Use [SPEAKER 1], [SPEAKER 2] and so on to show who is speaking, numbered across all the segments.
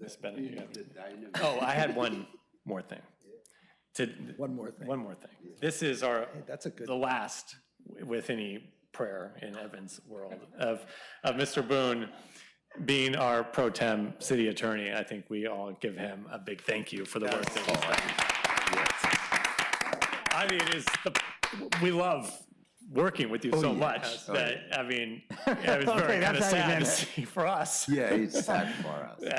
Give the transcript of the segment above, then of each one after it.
[SPEAKER 1] just been. you got-
[SPEAKER 2] I know.
[SPEAKER 1] Oh, I had one more thing. To,
[SPEAKER 3] One more thing.
[SPEAKER 1] one more thing. This is our,
[SPEAKER 3] that's a good-
[SPEAKER 1] the last, w- with any prayer in Evan's world, of, of Mr. Boone being our pro tem city attorney. I think we all give him a big thank you for the work that he's done. I mean, it's the, we love working with you so much that, I mean, it was very
[SPEAKER 4] Okay,
[SPEAKER 1] kind of
[SPEAKER 4] that's how you
[SPEAKER 1] sad to
[SPEAKER 4] meant
[SPEAKER 1] see for us,
[SPEAKER 2] Yeah, it's sad for us.
[SPEAKER 1] uh,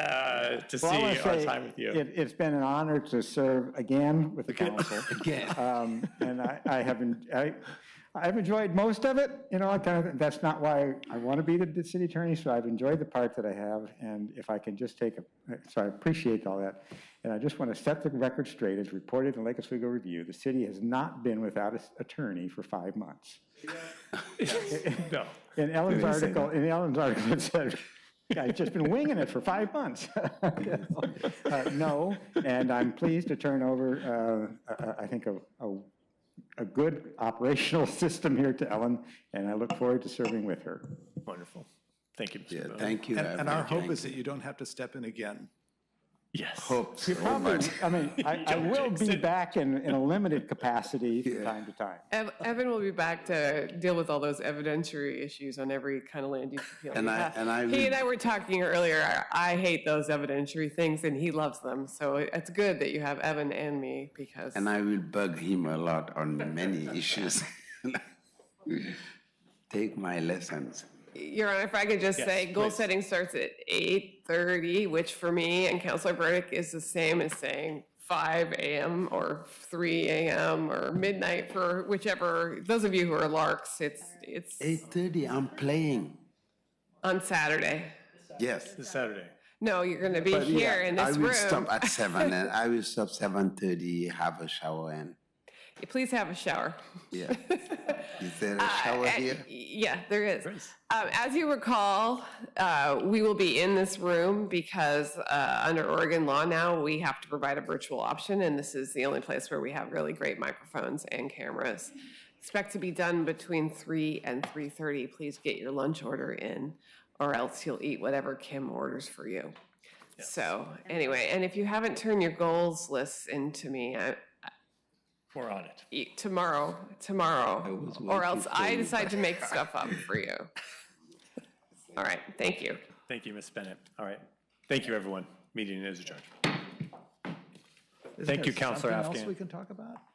[SPEAKER 1] to see
[SPEAKER 4] Well, I wanna
[SPEAKER 1] our
[SPEAKER 4] say
[SPEAKER 1] time with you.
[SPEAKER 4] It, it's been an honor to serve again with the council.
[SPEAKER 2] Again.
[SPEAKER 4] Um, And I, I haven't, I, I've enjoyed most of it, you know, I kind of, that's not why I want to be the- the city attorney, so I've enjoyed the part that I have, and if I can just take, a so I appreciate all that. And I just want to set the record straight, as reported in Lake Oswego Review, the city has not been without its attorney for five months.
[SPEAKER 1] No.
[SPEAKER 4] In Ellen's
[SPEAKER 2] didn't say
[SPEAKER 4] article, in Ellen's article, it said, I've just been winging it for five months. Uh, No, and I'm pleased to turn over, uh, a- a- I think, a, a, a good operational system here to Ellen, and I look forward to serving with her.
[SPEAKER 1] Wonderful. Thank you, Mr.
[SPEAKER 2] Yeah,
[SPEAKER 1] Boone.
[SPEAKER 2] thank you.
[SPEAKER 3] And, and our
[SPEAKER 2] Everett.
[SPEAKER 3] hope
[SPEAKER 2] Thank
[SPEAKER 3] is that you don't have to step in again.
[SPEAKER 1] Yes.
[SPEAKER 2] Hopes.
[SPEAKER 4] You
[SPEAKER 2] so
[SPEAKER 4] probably,
[SPEAKER 2] much.
[SPEAKER 4] I mean, I, I will be back in, in a limited capacity from time to time.
[SPEAKER 5] Ev- Evan will be back to deal with all those evidentiary issues on every kind of land use appeal.
[SPEAKER 2] And
[SPEAKER 5] we
[SPEAKER 2] I-
[SPEAKER 5] have.
[SPEAKER 2] and I
[SPEAKER 5] He
[SPEAKER 2] would-
[SPEAKER 5] and I were talking earlier, I- I hate those evidentiary things and he loves them. So it- it's good that you have Evan and me because
[SPEAKER 2] And I will bug him a lot on many issues. Take my lessons.
[SPEAKER 5] Your Honor, if I could just say, goal setting starts at eight thirty, which for me and Counselor Burdick is the same as saying five AM or three AM or midnight for whichever, those of you who are larks, it's, it's
[SPEAKER 2] Eight thirty, I'm playing.
[SPEAKER 5] on Saturday.
[SPEAKER 2] Yes.
[SPEAKER 1] This Saturday.
[SPEAKER 5] No, you're gonna be here
[SPEAKER 2] Yeah,
[SPEAKER 5] in
[SPEAKER 2] I
[SPEAKER 5] this
[SPEAKER 2] will
[SPEAKER 5] room.
[SPEAKER 2] stop at seven, and I will stop seven thirty, have a shower, and
[SPEAKER 5] Please have a shower.
[SPEAKER 2] yeah. Is there a shower
[SPEAKER 5] Uh,
[SPEAKER 2] here?
[SPEAKER 5] Yeah, there is. Um, as you recall, uh, we will be in this room because uh, under Oregon law now, we have to provide a virtual option, and this is the only place where we have really great microphones and cameras. Expect to be done between three and three thirty. Please get your lunch order in, or else you'll eat whatever Kim orders for you. So anyway, and if you haven't turned your goals lists into me, I,
[SPEAKER 1] We're on it.
[SPEAKER 5] eat e, tomorrow, tomorrow, or else I decide to make stuff up for you. All right, thank you.
[SPEAKER 1] Thank you, Ms. Bennett. All right. Thank you, everyone. Meeting is adjourned. Thank
[SPEAKER 3] Isn't there
[SPEAKER 1] you, Counselor
[SPEAKER 3] something else
[SPEAKER 1] Afghan.
[SPEAKER 3] we can talk about?